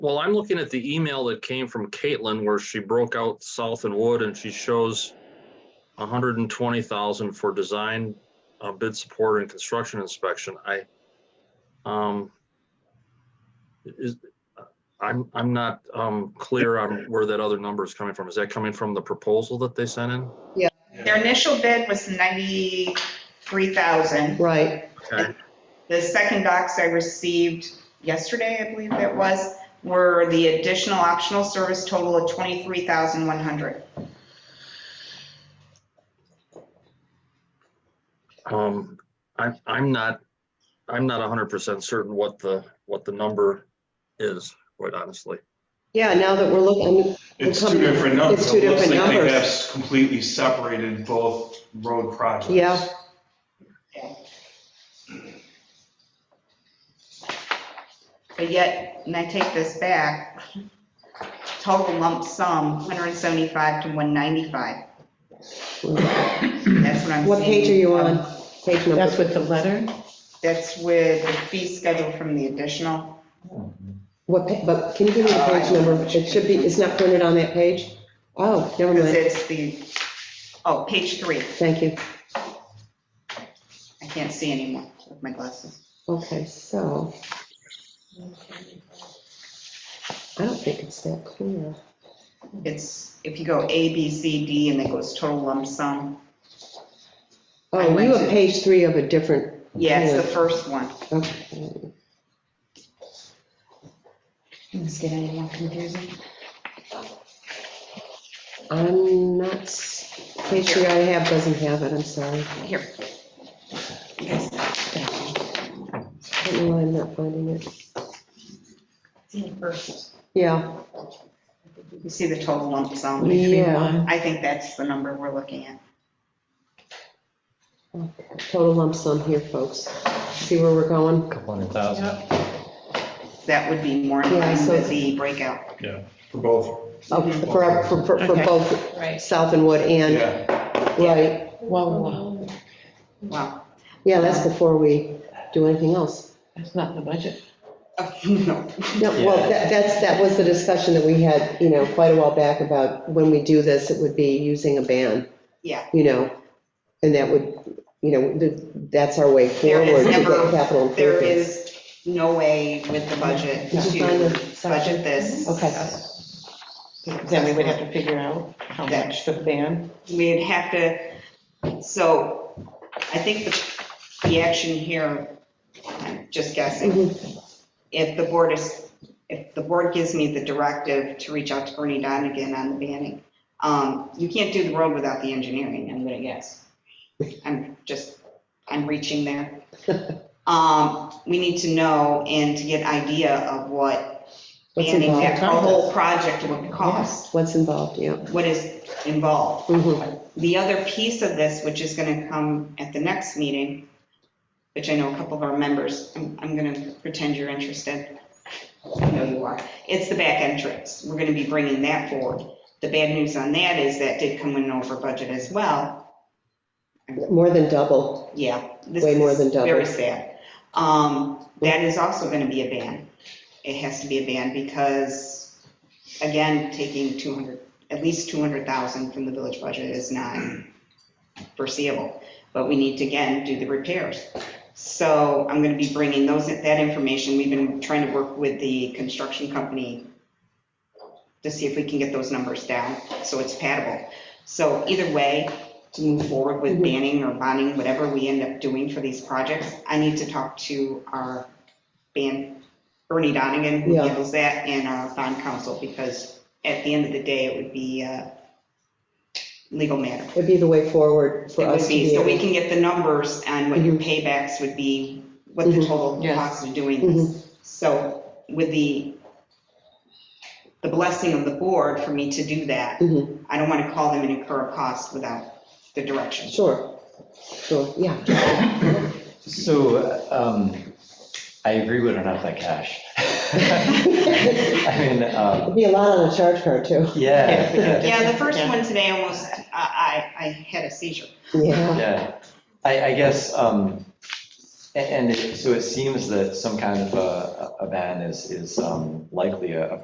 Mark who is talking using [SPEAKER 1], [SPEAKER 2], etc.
[SPEAKER 1] Well, I'm looking at the email that came from Caitlin where she broke out South and Wood and she shows hundred and twenty thousand for design, uh, bid support and construction inspection. I, um, is, I'm, I'm not, um, clear on where that other number is coming from. Is that coming from the proposal that they sent in?
[SPEAKER 2] Their initial bid was 93,000.
[SPEAKER 3] Right,
[SPEAKER 1] Okay,
[SPEAKER 2] The second docs I received yesterday, I believe it was, were the additional optional service total of 23,100.
[SPEAKER 1] um, I'm, I'm not, I'm not hundred percent certain what the, what the number is, quite honestly.
[SPEAKER 3] yeah, now that we're looking,
[SPEAKER 4] It's
[SPEAKER 3] We'll
[SPEAKER 4] two
[SPEAKER 3] come-
[SPEAKER 4] different numbers.
[SPEAKER 3] it's two
[SPEAKER 4] It looks
[SPEAKER 3] different
[SPEAKER 4] like they
[SPEAKER 3] numbers.
[SPEAKER 4] have s- Completely separated both road projects.
[SPEAKER 3] Yeah.
[SPEAKER 2] But yet, and I take this back, total lump sum, 175 to 195. That's what I'm seeing.
[SPEAKER 3] what page are you on? Page number,
[SPEAKER 5] That's with the letter?
[SPEAKER 2] That's with the fee schedule from the additional.
[SPEAKER 3] what, pa- but can you give me the page number? It should be, it's not printed on that page? Oh, never
[SPEAKER 2] Because
[SPEAKER 3] mind,
[SPEAKER 2] it's the, oh, page three.
[SPEAKER 3] thank you.
[SPEAKER 2] I can't see anymore with my glasses.
[SPEAKER 3] Okay, so. I don't think it's that clear.
[SPEAKER 2] It's, if you go A, B, C, D, and it goes total lump sum. I
[SPEAKER 3] Oh, you
[SPEAKER 2] went
[SPEAKER 3] have
[SPEAKER 2] to-
[SPEAKER 3] page three of a different,
[SPEAKER 2] Yeah, it's the
[SPEAKER 3] Yeah.
[SPEAKER 2] first one.
[SPEAKER 3] okay.
[SPEAKER 2] It's getting any more confusing.
[SPEAKER 3] I'm not, s- page three I have doesn't have it, I'm sorry.
[SPEAKER 2] Here.
[SPEAKER 3] I don't know why I'm not finding it.
[SPEAKER 2] You
[SPEAKER 3] Yeah,
[SPEAKER 2] see the total lump sum?
[SPEAKER 3] yeah,
[SPEAKER 2] I think that's the number we're looking at.
[SPEAKER 3] total lump sum here, folks. See where we're going?
[SPEAKER 6] Couple hundred thousand.
[SPEAKER 2] That would be more in
[SPEAKER 3] Yeah,
[SPEAKER 2] line
[SPEAKER 3] so-
[SPEAKER 2] with the breakout.
[SPEAKER 4] For both,
[SPEAKER 3] Oh,
[SPEAKER 2] Mm-hmm.
[SPEAKER 3] For, for, for for
[SPEAKER 5] Okay.
[SPEAKER 3] both
[SPEAKER 5] Right.
[SPEAKER 3] South and Wood and,
[SPEAKER 4] yeah.
[SPEAKER 3] right,
[SPEAKER 5] Whoa, whoa, whoa.
[SPEAKER 2] Wow.
[SPEAKER 3] yeah, that's before we do anything else.
[SPEAKER 5] that's not in the budget.
[SPEAKER 2] Oh, no.
[SPEAKER 3] No, well, that, that's, that was the discussion that we had, you know, quite a while back about when we do this, it would be using a ban,
[SPEAKER 2] Yeah,
[SPEAKER 3] you know? And that would, you know, th- that's our way
[SPEAKER 2] There is
[SPEAKER 3] forward to
[SPEAKER 2] never-
[SPEAKER 3] get capital improvements.
[SPEAKER 2] there is no way with the budget
[SPEAKER 3] Yeah.
[SPEAKER 2] to budget this.
[SPEAKER 5] Okay. Then we would have to figure out how much for the ban.
[SPEAKER 2] we'd have to, so I think the, the action here, I'm just guessing,
[SPEAKER 3] Mm-hmm.
[SPEAKER 2] if the board is, if the board gives me the directive to reach out to Bernie Donigan on the banning, um, you can't do the road without the engineering, I'm gonna guess. I'm just, I'm reaching there. Um, we need to know and to get idea of what
[SPEAKER 3] What's
[SPEAKER 2] banning that
[SPEAKER 3] involved?
[SPEAKER 2] whole project would cost,
[SPEAKER 3] What's involved, yeah.
[SPEAKER 2] what is involved.
[SPEAKER 3] Mhm.
[SPEAKER 2] The other piece of this, which is going to come at the next meeting, which I know a couple of our members, I'm, I'm going to pretend you're interested. I know you are. It's the back entrance. We're going to be bringing that forward. The bad news on that is that did come in over budget as well.
[SPEAKER 3] More than double,
[SPEAKER 2] Yeah. this
[SPEAKER 3] Way more
[SPEAKER 2] is
[SPEAKER 3] than double.
[SPEAKER 2] Very sad. Um, that is also going to be a ban. It has to be a ban because, again, taking 200, at least 200,000 from the village budget is not foreseeable. But we need to, again, do the repairs. So I'm going to be bringing those, that information. We've been trying to work with the construction company to see if we can get those numbers down, so it's patable. So either way, to move forward with
[SPEAKER 3] Mhm.
[SPEAKER 2] banning or bonding, whatever we end up doing for these projects, I need to talk to our ban, Bernie Donigan, who
[SPEAKER 3] Yeah.
[SPEAKER 2] handles that, and our bond counsel, because at the end of the day, it would be a legal matter.
[SPEAKER 3] it'd be the way forward for
[SPEAKER 2] It
[SPEAKER 3] us
[SPEAKER 2] would
[SPEAKER 3] to
[SPEAKER 2] be,
[SPEAKER 3] be
[SPEAKER 2] so we
[SPEAKER 3] able.
[SPEAKER 2] can get the numbers on what your paybacks would be, what the
[SPEAKER 3] Mhm.
[SPEAKER 2] total
[SPEAKER 5] Yes.
[SPEAKER 2] cost of doing this. So with the, the blessing of the board for me to do that,
[SPEAKER 3] Mhm.
[SPEAKER 2] I don't want to call them and incur a cost without the direction.
[SPEAKER 3] Sure, sure, yeah.
[SPEAKER 6] So um, I agree we don't have that cash. I mean, um,
[SPEAKER 3] It'd be a lot on a charge card, too.
[SPEAKER 6] yeah, yeah,
[SPEAKER 2] Yeah, the first
[SPEAKER 5] Yeah.
[SPEAKER 2] one today almost, I, I, I had a seizure.
[SPEAKER 3] Yeah,
[SPEAKER 6] yeah. I, I guess um, A- uh, And it- so it seems that some kind of a, a a ban is, is um, likely a a